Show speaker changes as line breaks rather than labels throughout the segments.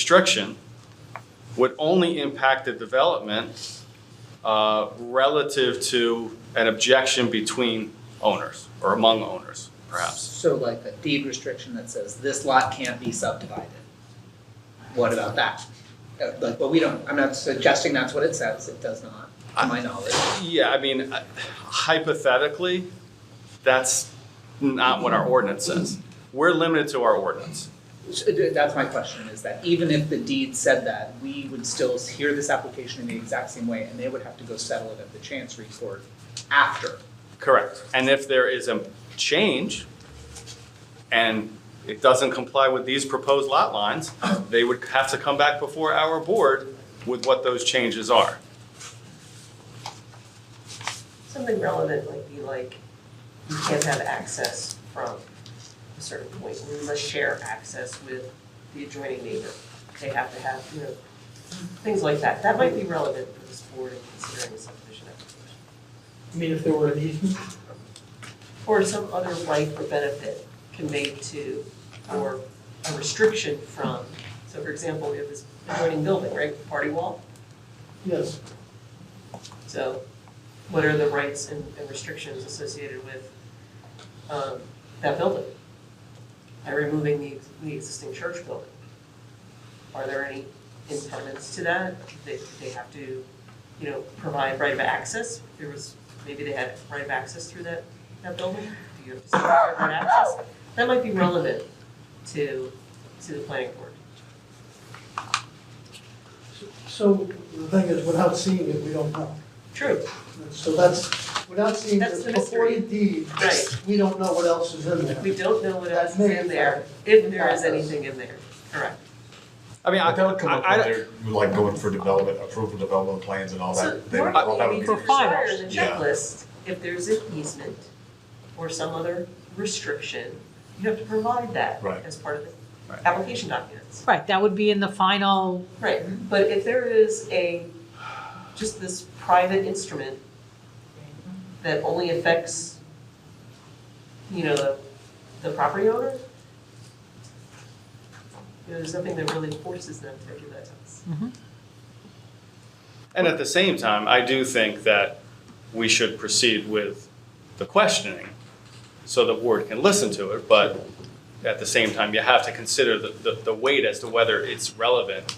restriction would only impact the development uh, relative to an objection between owners or among owners, perhaps.
So like a deed restriction that says this lot can't be subdivided. What about that? Uh, Like, but we don't, I'm not suggesting that's what it says, it does not, to my knowledge.
Yeah, I mean, uh, hypothetically, that's not what our ordinance says. We're limited to our ordinance.
So, uh, That's my question, is that even if the deed said that, we would still hear this application in the exact same way, and they would have to go settle it at the chancery court after.
Correct. And if there is a change and it doesn't comply with these proposed lot lines, they would have to come back before our board with what those changes are.
Something relevant might be like, you can't have access from a certain point, or you must share access with the adjoining neighbor. They have to have, you know, things like that. That might be relevant for this board in considering a subdivision application.
I mean, if there were an easement,
Or some other right or benefit conveyed to, or a restriction from. So for example, we have this adjoining building, right, party wall?
yes,
So what are the rights and and restrictions associated with um, that building? By removing the, the existing church building? Are there any impediments to that? They, they have to, you know, provide right of access? There was, maybe they had right of access through that, that building? Do you have to secure right of access? That might be relevant to, to the planning board.
so the thing is, without seeing it, we don't know.
True.
So that's, without seeing
That's the
the
mystery.
purported deed,
Right.
we don't know what else is in there.
We don't know what else is
That may
in there, if there
impact
is
us.
anything in there, correct?
I mean, I,
That would come up
I,
when
I-
they're like going for development, approval development plans and all
So
that. They would all
marketing
have
needs
a-
to require in the
Yeah.
checklist, if there's an easement or some other restriction, you have to provide that
Right.
as part of
Right.
the application documents.
Right, that would be in the final,
Right, but if there is a, just this private instrument that only affects, you know, the, the property owner, you know, there's nothing that really forces them to give that to us.
and at the same time, I do think that we should proceed with the questioning so the board can listen to it, but at the same time, you have to consider the, the, the weight as to whether it's relevant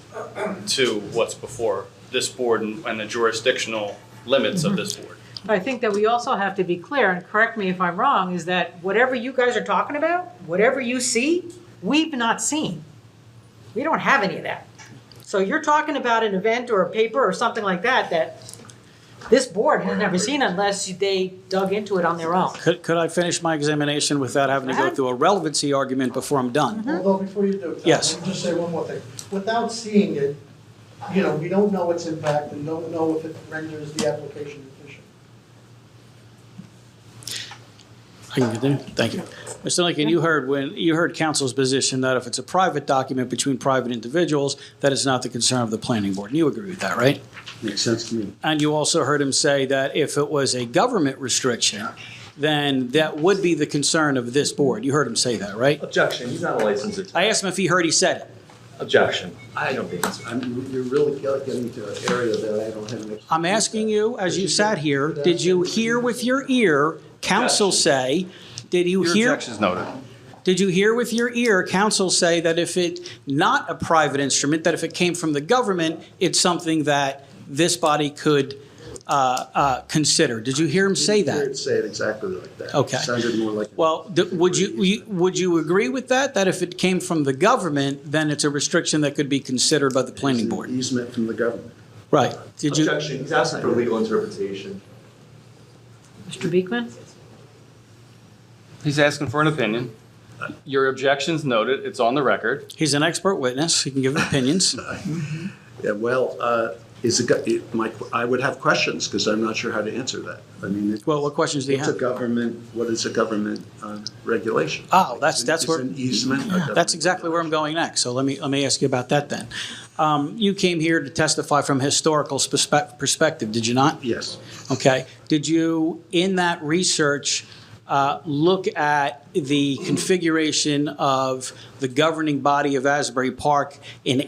to what's before this board and and the jurisdictional limits of this board.
but I think that we also have to be clear, and correct me if I'm wrong, is that whatever you guys are talking about, whatever you see, we've not seen. We don't have any of that. So you're talking about an event or a paper or something like that, that this board has never seen unless they dug into it on their own.
Could, could I finish my examination without having to
Go
go
ahead.
through a relevancy argument before I'm done?
Although, before you do, Tom,
Yes.
let me just say one more thing. Without seeing it, you know, we don't know its impact and don't know if it renders the application efficient.
I can continue? Thank you. Mr. Lincoln, you heard when, you heard counsel's position that if it's a private document between private individuals, that is not the concern of the planning board. And you agree with that, right?
Makes sense to me.
And you also heard him say that if it was a government restriction, then that would be the concern of this board. You heard him say that, right?
Objection, he's not a licensed attorney.
I asked him if he heard he said it.
Objection, I don't think so.
I'm, you're really getting to an area that I don't have an.
I'm asking you, as you sat here, did you hear with your ear counsel say, did you hear?
noted.
Did you hear with your ear counsel say that if it, not a private instrument, that if it came from the government, it's something that this body could uh, uh, consider? Did you hear him
Hear
say
it
that?
Say it exactly like that.
Okay.
Sounded more like.
Well, th- would you, you- would you agree with that? That if it came from the government, then it's a restriction that could be considered by the planning
It's an
board?
Easement from the government.
Right. Did you?
Objection, he's asking for legal interpretation.
Mr. Beekman?
He's asking for an opinion. Your objection's noted, it's on the record.
He's an expert witness. He can give opinions.
Yeah, well, uh, is it, go- it, my, I would have questions because I'm not sure how to answer that. I mean, it-
Well, what questions do you
it's a
have?
government, what is a government, uh, regulation?
Oh, that's- that's
Is
where-
an easement. a government
That's exactly where I'm going next. So let me, let me ask you about that then. Um, You came here to testify from a historical perspe- perspective, did you not?
regulation? Yes.
Okay. Did you, in that research, uh, look at the configuration of the governing body of Asbury Park in